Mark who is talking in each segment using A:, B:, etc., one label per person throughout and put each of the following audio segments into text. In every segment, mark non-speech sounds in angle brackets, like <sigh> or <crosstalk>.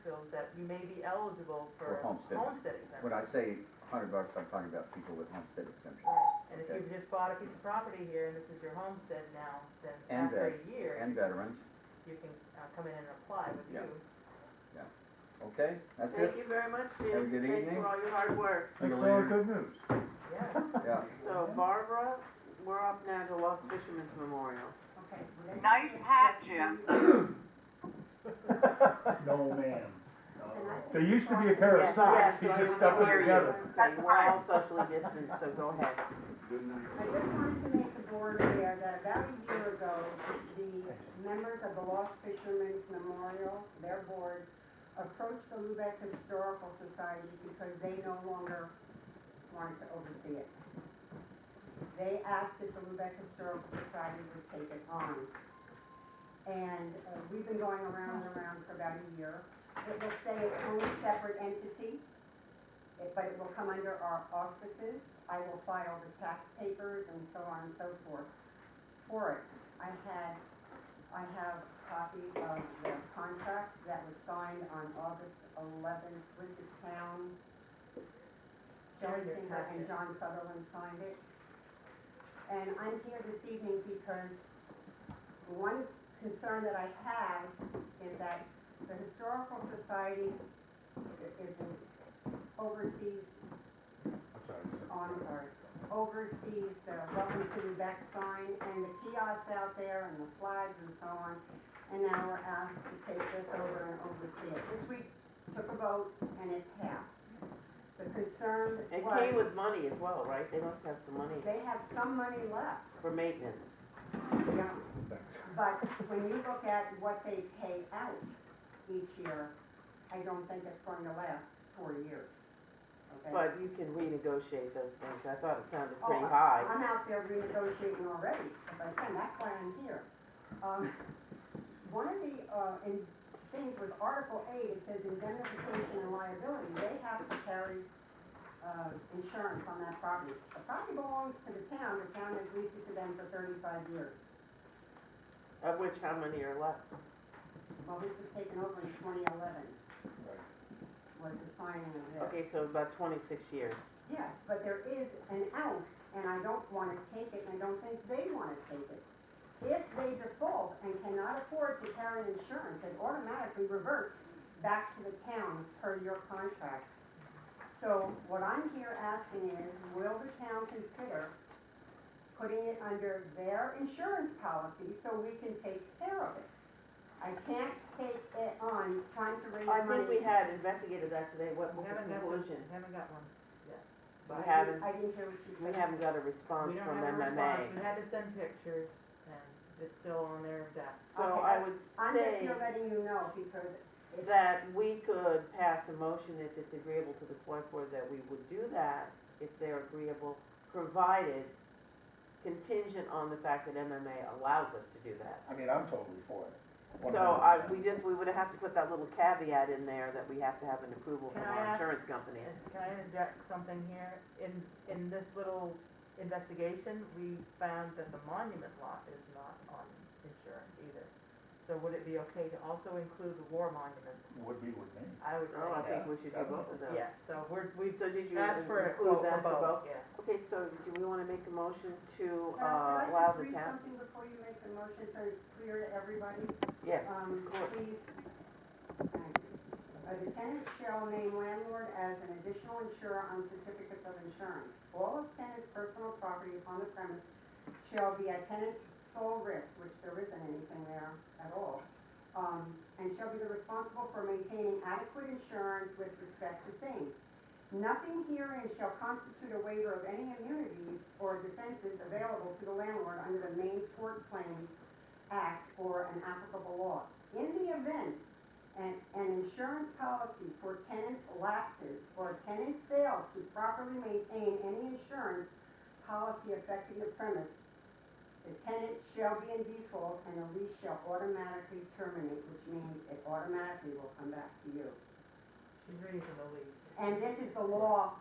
A: officials that you may be eligible for
B: For homestead.
A: homestead exemption.
B: When I say hundred bucks, I'm talking about people with homestead exemption.
A: Right, and if
B: Okay.
A: you've just bought a piece of property here and this is your homestead now, then
B: And uh,
A: after a year,
B: And veterans,
A: you can uh, come in and apply with
B: Yeah.
A: you.
C: <laughs>
B: okay, that's
D: Thank
B: it,
D: you very much,
B: Have a
D: Jim.
B: good
D: Thanks
B: evening.
D: for all your hard work.
B: See you
E: That's all
B: later.
E: good news.
A: Yes.
B: yeah.
D: So Barbara, we're up now to Lost Fisherman's Memorial.
F: Nice hat, Jim.
E: <laughs> No, ma'am. There used to be a pair of
D: Yes,
E: socks,
D: yes,
E: he
D: so I
E: just
D: wanna
E: stuck them
D: hear you.
E: together.
D: Okay, we're all socially distanced, so go ahead.
G: I just wanted to make the board aware that about a year ago, the members of the Lost Fishermen's Memorial, their board, approached the Lubec Historical Society because they no longer wanted to oversee it. They asked if the Lubec Historical Society would take it on. And uh, we've been going around and around for about a year. It will say its own separate entity, it- but it will come under our auspices. I will file the tax papers and so on and so forth for it. I had, I have a copy of the contract that was signed on August eleventh with the town. Jerry
A: Your
G: Tinker and
A: packet.
G: John Sutherland signed it. And I'm here this evening because one concern that I have is that the Historical Society i- is in oversees, oh, I'm sorry, oversees the welcome to Lubec sign and the kiosks out there and the flags and so on. And now we're asked to take this over and oversee it, which we took a vote and it passed. The concern
D: It came
G: was,
D: with money as well, right? They must have some money
G: they have some money left,
D: for maintenance.
G: you know, But when you look at what they pay out each year, I don't think it's going to last four years, okay?
D: But you can renegotiate those things. I thought it sounded pretty
G: Oh,
D: high.
G: I'm out there renegotiating already, if I can, that's why I'm here. Um, One of the, uh, in things was Article eight, it says indemnification and liability, they have to carry, uh, insurance on that property. The property belongs to the town, the town has leased it to them for thirty-five years.
D: Of which, how many are left?
G: Well, this was taken over in twenty eleven, was the signing of this.
D: Okay, so about twenty-six years.
G: Yes, but there is an out, and I don't wanna take it, and I don't think they wanna take it. If they default and cannot afford to carry insurance, it automatically reverts back to the town per your contract. So what I'm here asking is, will the town consider putting it under their insurance policy so we can take care of it? I can't take it on trying to raise
D: I
G: money.
D: think we had investigated that today. What was the
C: Haven't got one,
D: conclusion?
C: haven't got one.
D: We
G: I didn't-
D: haven't,
G: I didn't hear what you said.
D: we haven't got a response
C: We don't
D: from
C: have a response, we
D: MMA.
C: had to send pictures, and it's still on their desk.
D: So
G: Okay,
D: I would
G: I'm just
D: say
G: here letting you know because it-
D: that we could pass a motion if it's agreeable to the select board that we would do that if they're agreeable, provided contingent on the fact that MMA allows us to do that.
H: I mean, I'm totally for it.
D: So I, we just, we would have to put that little caveat in there that we have to have an approval from
C: Can I
D: our
C: ask-
D: insurance company.
C: Can I interject something here? In, in this little investigation, we found that the monument lot is not on insurance either. So would it be okay to also include the war monument?
H: Would be with me.
C: I would
D: Oh, I
C: say,
D: think we should do both of those.
C: yes, so we're, we've
D: So did you
C: asked for a quote
D: include that
C: for
D: for
C: both,
D: both?
C: yes.
D: Okay, so do we wanna make a motion to, uh,
G: Uh, can
D: allow
G: I just
D: the
G: read
D: town?
G: something before you make the motion so it's clear to everybody?
D: Yes,
G: Um, please. A tenant shall name landlord as an additional insurer on certificates of insurance. All of tenant's personal property upon the premise shall be at tenant's sole risk, which there isn't anything there at all. Um, and shall be the responsible for maintaining adequate insurance with respect to same. Nothing herein shall constitute a waiver of any immunities or defenses available to the landlord under the main tort claims act or an applicable law. In the event an, an insurance policy for tenants lapses or tenant fails to properly maintain any insurance policy affecting the premise, the tenant shall be in default and the lease shall automatically terminate, which means it automatically will come back to you.
C: She's reading from the lease.
G: And this is the law,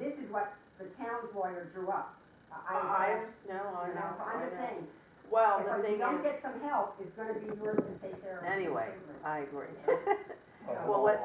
G: this is what the town's lawyer drew up. I,
D: I, no,
G: I,
D: I
G: you know,
D: know,
G: so
D: I
G: I'm just
D: know.
G: saying,
D: Well, the
G: if
D: thing
G: you don't
D: is,
G: get some help, it's gonna be yours to take care of. <laughs>
D: anyway, I agree.
G: So-
D: uh, Well, let's